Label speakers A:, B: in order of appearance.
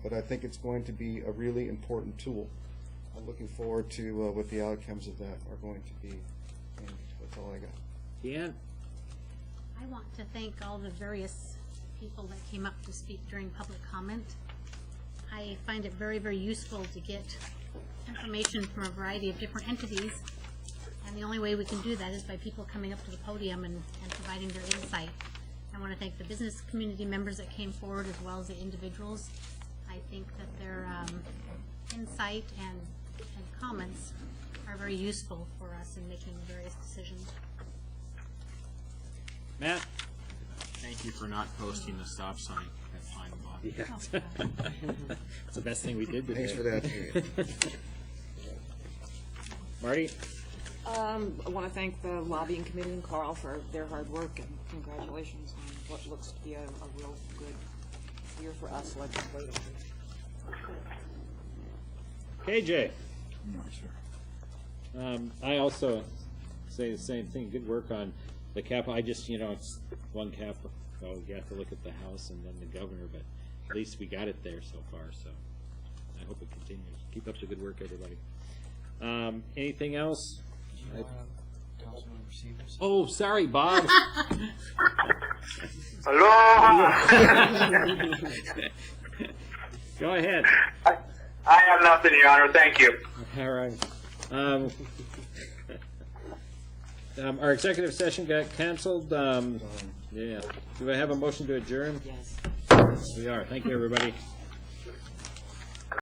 A: but I think it's going to be a really important tool. I'm looking forward to uh, what the outcomes of that are going to be, and that's all I got.
B: Deanne?
C: I want to thank all the various people that came up to speak during public comment. I find it very, very useful to get information from a variety of different entities, and the only way we can do that is by people coming up to the podium and, and providing their insight. I want to thank the business community members that came forward as well as the individuals. I think that their um, insight and, and comments are very useful for us in making various decisions.
B: Matt?
D: Thank you for not posting the stop sign at Pine Bottom.
B: Yeah. It's the best thing we did today.
A: Thanks for that.
B: Marty?
E: Um, I want to thank the lobbying committee and Carl for their hard work and congratulations on what looks to be a, a real good year for us legislatively.
B: KJ? Um, I also say the same thing, good work on the cap, I just, you know, it's one cap, oh, you have to look at the House and then the governor, but at least we got it there so far, so I hope it continues. Keep up the good work, everybody. Um, anything else? Oh, sorry, Bob.
F: Aloha!
B: Go ahead.
F: I have nothing, Your Honor. Thank you.
B: All right. Um, um, our executive session got canceled. Um, yeah. Do I have a motion to adjourn?
E: Yes.
B: We are. Thank you, everybody.